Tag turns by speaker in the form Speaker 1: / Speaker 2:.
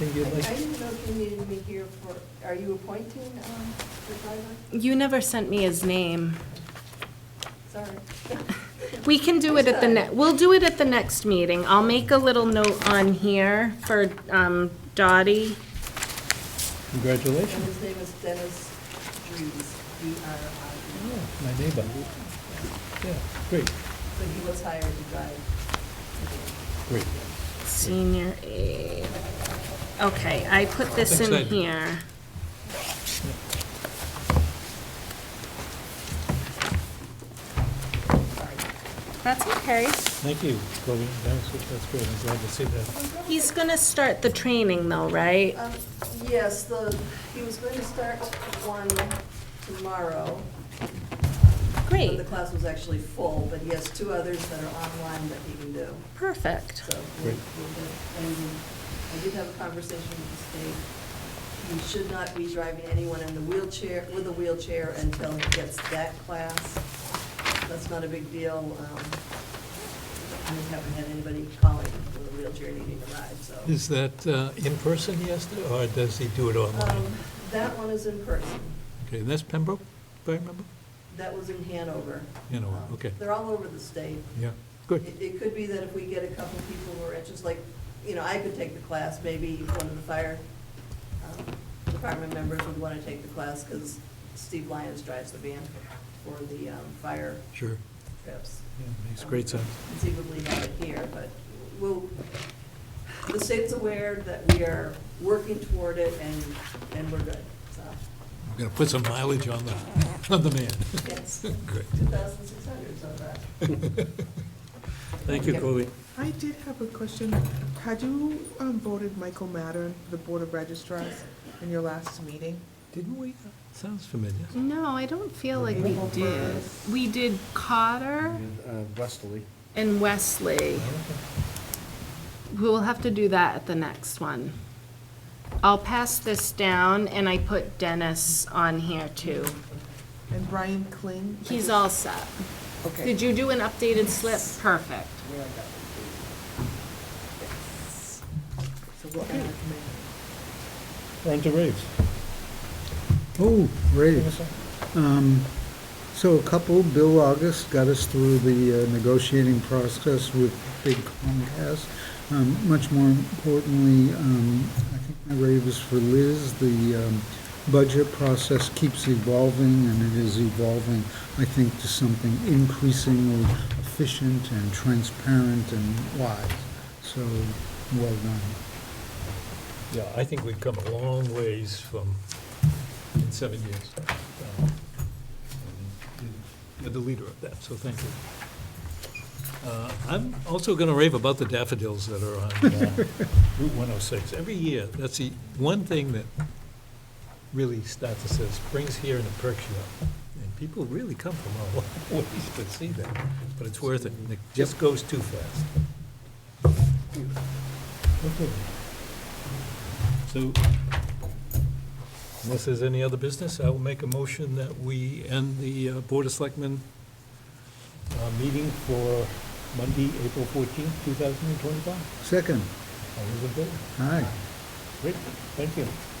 Speaker 1: Anything you'd
Speaker 2: I
Speaker 1: like?
Speaker 2: didn't know if you needed me here for, are you appointing um, the driver?
Speaker 3: You never sent me his name.
Speaker 2: Sorry.
Speaker 3: We can do it at the ne, we'll do it at the next meeting. I'll make a little note on here for um,
Speaker 2: And
Speaker 3: Dottie.
Speaker 1: Congratulations.
Speaker 2: his name is Dennis Drees, D-R-I-E.
Speaker 1: Oh, My neighbor. Yeah, great,
Speaker 2: So he was hired to drive.
Speaker 1: great.
Speaker 3: Senior aide. Okay, I put this
Speaker 1: Thanks,
Speaker 3: in
Speaker 1: Ed.
Speaker 3: here. That's okay.
Speaker 1: Thank you, Chloe. That was, that's great. I'm glad to see that.
Speaker 3: He's gonna start the training though, right?
Speaker 2: Um, Yes, the, he was going to start one tomorrow. But
Speaker 3: Great,
Speaker 2: the class was actually full, but he has two others that are online that he can do.
Speaker 3: perfect.
Speaker 2: So, we'll-
Speaker 1: Great.
Speaker 2: we'll get- and um, I did have a conversation with the state. He should not be driving anyone in the wheelchair, with a wheelchair until he gets that class. That's not a big deal. um, I just haven't had anybody calling with a wheelchair needing a ride, so.
Speaker 1: Is that uh, in person, yes, or does he do it online?
Speaker 2: Um, That one is in person.
Speaker 1: Okay, that's Pembroke, if I remember?
Speaker 2: That was in Hanover.
Speaker 1: Hanover,
Speaker 2: Um,
Speaker 1: okay.
Speaker 2: They're all over the state.
Speaker 1: Yeah, good.
Speaker 2: It, it could be that if we get a couple people who are interested, like, you know, I could take the class, maybe one of the fire um, department members would want to take the class, because Steve Lyons drives the van for the um, fire
Speaker 1: Sure.
Speaker 2: trips.
Speaker 1: Yeah, Makes great sense.
Speaker 2: Conceivably have it here, but we'll, the state's aware that we are working toward it, and, and we're good, so,
Speaker 1: We're going to put some mileage on the, on the man.
Speaker 2: yes.
Speaker 1: Great.
Speaker 2: 2,600, so that.
Speaker 1: Thank you, Colby.
Speaker 4: I did have a question. Had you um, voted Michael Mattern, for the Board of Registrars, in your last meeting?
Speaker 1: Didn't we? Sounds familiar.
Speaker 3: No, I don't feel like we
Speaker 4: Maybe
Speaker 3: did.
Speaker 4: Hoppers.
Speaker 3: We did Cotter
Speaker 5: Westerly.
Speaker 3: and Wesley. We will have to do that at the next one. I'll pass this down, and I put Dennis on here too.
Speaker 4: And Brian Kling?
Speaker 3: He's all set.
Speaker 4: Okay.
Speaker 3: Did you do an updated slip? Perfect.
Speaker 4: So what I recommend.
Speaker 1: We're on to raves.
Speaker 6: Oh, great. Um, So a couple, Bill August got us through the uh, negotiating process with Big Comcast. Um, Much more importantly, um, I think my rave is for Liz, the um, budget process keeps evolving, and it is evolving, I think, to something increasingly efficient and transparent and wise. So, well done.
Speaker 1: Yeah, I think we've come a long ways from, in seven years. Um, You're the leader of that, so thank you. Uh, I'm also going to rave about the daffodils that are on uh, Route 106. Every year, that's the one thing that really starts to say, springs here and it perks you up. And people really come from all ways to see that, but it's worth it. It just goes too fast. So, unless there's any other business, I will make a motion that we end the uh, Board of Selectmen uh, meeting for Monday, April fourteenth, two thousand and twenty-five.
Speaker 6: Second,
Speaker 1: All those in favor?
Speaker 6: hi.
Speaker 1: Great, thank you.